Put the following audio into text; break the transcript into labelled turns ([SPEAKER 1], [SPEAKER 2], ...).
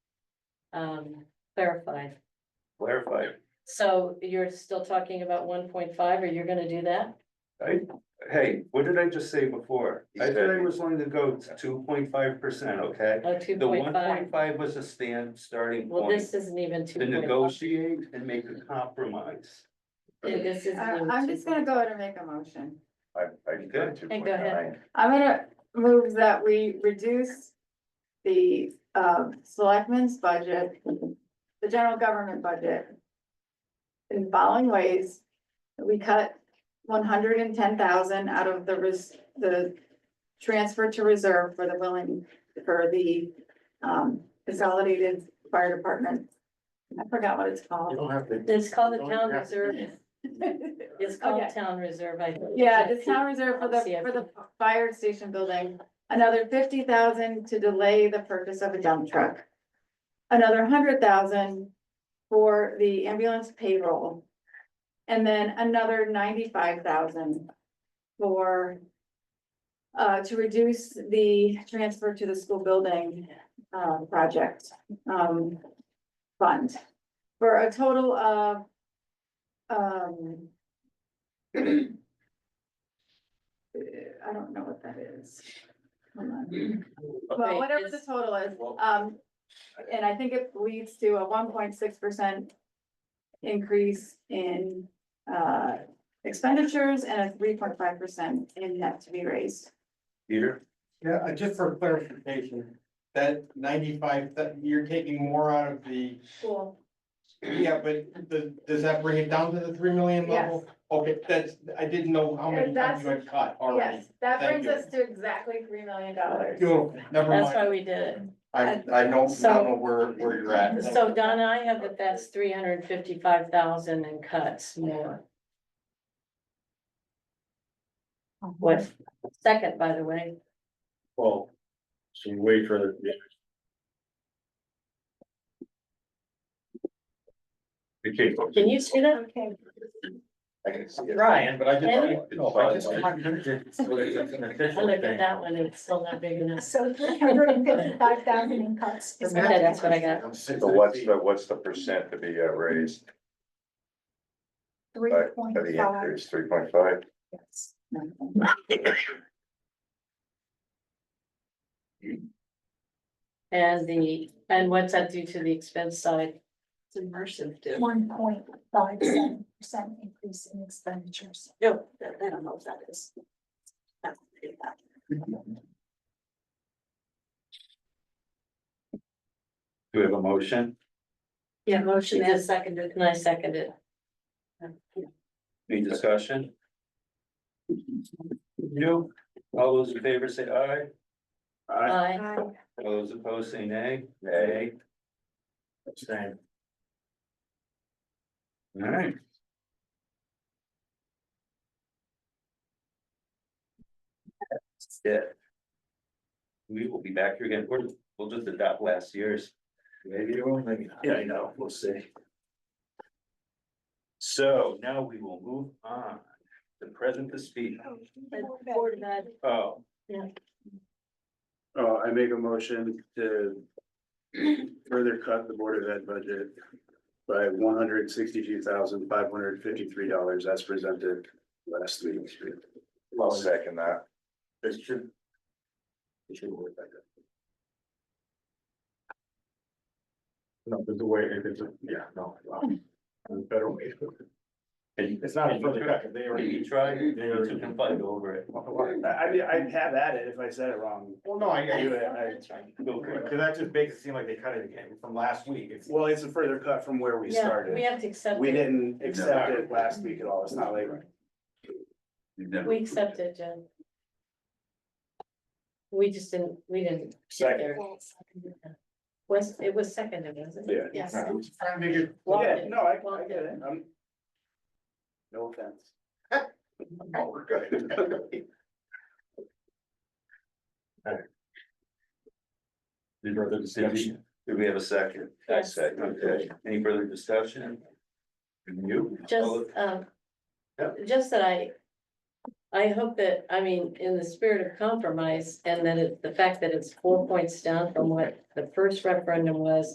[SPEAKER 1] um, clarified.
[SPEAKER 2] clarify.
[SPEAKER 1] So you're still talking about one point five, or you're gonna do that?
[SPEAKER 2] Hey, what did I just say before?
[SPEAKER 3] He
[SPEAKER 2] I
[SPEAKER 3] said-
[SPEAKER 2] said I was willing to go two point five percent, okay?
[SPEAKER 1] Oh, two
[SPEAKER 2] The one
[SPEAKER 1] point
[SPEAKER 2] point
[SPEAKER 1] five?
[SPEAKER 2] five was a stand, starting
[SPEAKER 1] Well,
[SPEAKER 2] point
[SPEAKER 1] this isn't even two
[SPEAKER 2] to
[SPEAKER 1] point five.
[SPEAKER 2] negotiate and make a compromise.
[SPEAKER 1] This isn't
[SPEAKER 4] I-
[SPEAKER 1] even
[SPEAKER 4] I'm just
[SPEAKER 1] 2.5.
[SPEAKER 4] gonna go ahead and make a motion.
[SPEAKER 3] I, I did
[SPEAKER 2] Okay.
[SPEAKER 3] two
[SPEAKER 1] Hey,
[SPEAKER 3] point
[SPEAKER 1] go ahead.
[SPEAKER 3] nine.
[SPEAKER 4] I'm gonna move that we reduce the um selectmen's budget, the general government budget. In following ways, we cut one hundred and ten thousand out of the res- the transfer to reserve for the willing, for the um consolidated fire department. I forgot what it's
[SPEAKER 3] You
[SPEAKER 4] called.
[SPEAKER 3] don't have to.
[SPEAKER 1] It's called the
[SPEAKER 3] Don't
[SPEAKER 1] town
[SPEAKER 3] have to
[SPEAKER 1] reserve. It's called
[SPEAKER 4] Okay.
[SPEAKER 1] town reserve, I think.
[SPEAKER 4] Yeah, the town reserve for the,
[SPEAKER 1] CIP.
[SPEAKER 4] for the fire station building, another fifty thousand to delay the purchase of a dump truck. Another hundred thousand for the ambulance payroll. And then another ninety-five thousand for uh, to reduce the transfer to the school building, um, project, um, fund. For a total of, um, uh, I don't know what that is. Hold on.
[SPEAKER 1] Wait,
[SPEAKER 4] Well, whatever the
[SPEAKER 1] it's-
[SPEAKER 4] total is,
[SPEAKER 2] Well-
[SPEAKER 4] um, and I think it leads to a one point six percent increase in, uh, expenditures and a three point five percent in net to be raised.
[SPEAKER 2] Here,
[SPEAKER 5] Yeah, uh, just for clarification, that ninety-five, that you're taking more out of the,
[SPEAKER 4] Cool.
[SPEAKER 5] yeah, but the, does that bring it down to the three million level? Okay, that's, I didn't know how many times you had cut already.
[SPEAKER 4] Yes, that
[SPEAKER 5] Thank
[SPEAKER 4] brings
[SPEAKER 5] you.
[SPEAKER 4] us to exactly three million dollars.
[SPEAKER 5] Beautiful, never
[SPEAKER 1] That's why
[SPEAKER 5] mind.
[SPEAKER 1] we did it.
[SPEAKER 5] I, I don't, I don't
[SPEAKER 1] So-
[SPEAKER 5] know where, where you're at.
[SPEAKER 1] So Donna, I have that that's three hundred and fifty-five thousand in cuts more. What, second, by the way,
[SPEAKER 3] Well, so you wait for the.
[SPEAKER 2] it came from-
[SPEAKER 1] can you see that?
[SPEAKER 4] Okay.
[SPEAKER 3] I can see it.
[SPEAKER 5] Ryan, but I
[SPEAKER 1] Can
[SPEAKER 5] just. No, I just-
[SPEAKER 1] I look at that one, it's still not big enough.
[SPEAKER 6] So three hundred and fifty-five thousand in cuts. is
[SPEAKER 1] Okay, that's what I got.
[SPEAKER 5] I'm six
[SPEAKER 3] So what's
[SPEAKER 5] feet.
[SPEAKER 3] the, what's the percent to be uh, raised
[SPEAKER 6] Three
[SPEAKER 3] by
[SPEAKER 6] point
[SPEAKER 3] the
[SPEAKER 6] five.
[SPEAKER 3] increase, three point five?
[SPEAKER 1] And the, and what's that do to the expense side? It's immersive, dude.
[SPEAKER 6] One point five seven percent increase in expenditures. Yep. I don't know if that is. that's pretty bad.
[SPEAKER 2] Do we have a motion?
[SPEAKER 1] Yeah, motion is seconded, and I seconded.
[SPEAKER 2] Any discussion? No, all those in favor say aye,
[SPEAKER 1] Aye.
[SPEAKER 2] all those opposed say nay,
[SPEAKER 3] Nay.
[SPEAKER 2] nay, alright. That's it. We will be back here again, we're, we'll just adopt last year's.
[SPEAKER 3] Maybe you will, maybe not.
[SPEAKER 2] Yeah, I know, we'll see. So now we will move on, the present to speak,
[SPEAKER 1] Board of Ed.
[SPEAKER 2] oh.
[SPEAKER 1] Yeah.
[SPEAKER 2] Uh, I make a motion to further cut the Board of Ed budget by one hundred sixty-two thousand, five hundred fifty-three dollars as presented last week.
[SPEAKER 3] I'll second that.
[SPEAKER 2] It should. It should work like that.
[SPEAKER 3] No, but the way, if it's, yeah, no. Better way.
[SPEAKER 2] It's
[SPEAKER 3] not a further cut,
[SPEAKER 2] they already. Tried, they already can fight over it.
[SPEAKER 3] I, I mean, I'd have at it if I said it wrong.
[SPEAKER 5] Well, no, I, I,
[SPEAKER 2] Go for it.
[SPEAKER 5] cause that just makes it seem like they cut it again from last week. It's-
[SPEAKER 7] Well, it's a further cut from where we
[SPEAKER 1] Yeah, we
[SPEAKER 7] started.
[SPEAKER 1] have to accept
[SPEAKER 7] We
[SPEAKER 1] it.
[SPEAKER 7] didn't accept it last week at all. It's not like,
[SPEAKER 1] We accept it, Jen. We just didn't, we didn't. Was, it was seconded, wasn't it?
[SPEAKER 7] yeah.
[SPEAKER 1] Yes.
[SPEAKER 5] Trying to make it
[SPEAKER 7] Yeah, no, I, I get it. I'm. No offense.
[SPEAKER 3] Oh, we're good.
[SPEAKER 2] Any further discussion? Do we have a second? I
[SPEAKER 1] Yes.
[SPEAKER 2] second. Okay, any further discussion? From You?
[SPEAKER 1] Just, um. Just that I. I hope that, I mean, in the spirit of compromise and that it, the fact that it's four points down from what the first referendum was.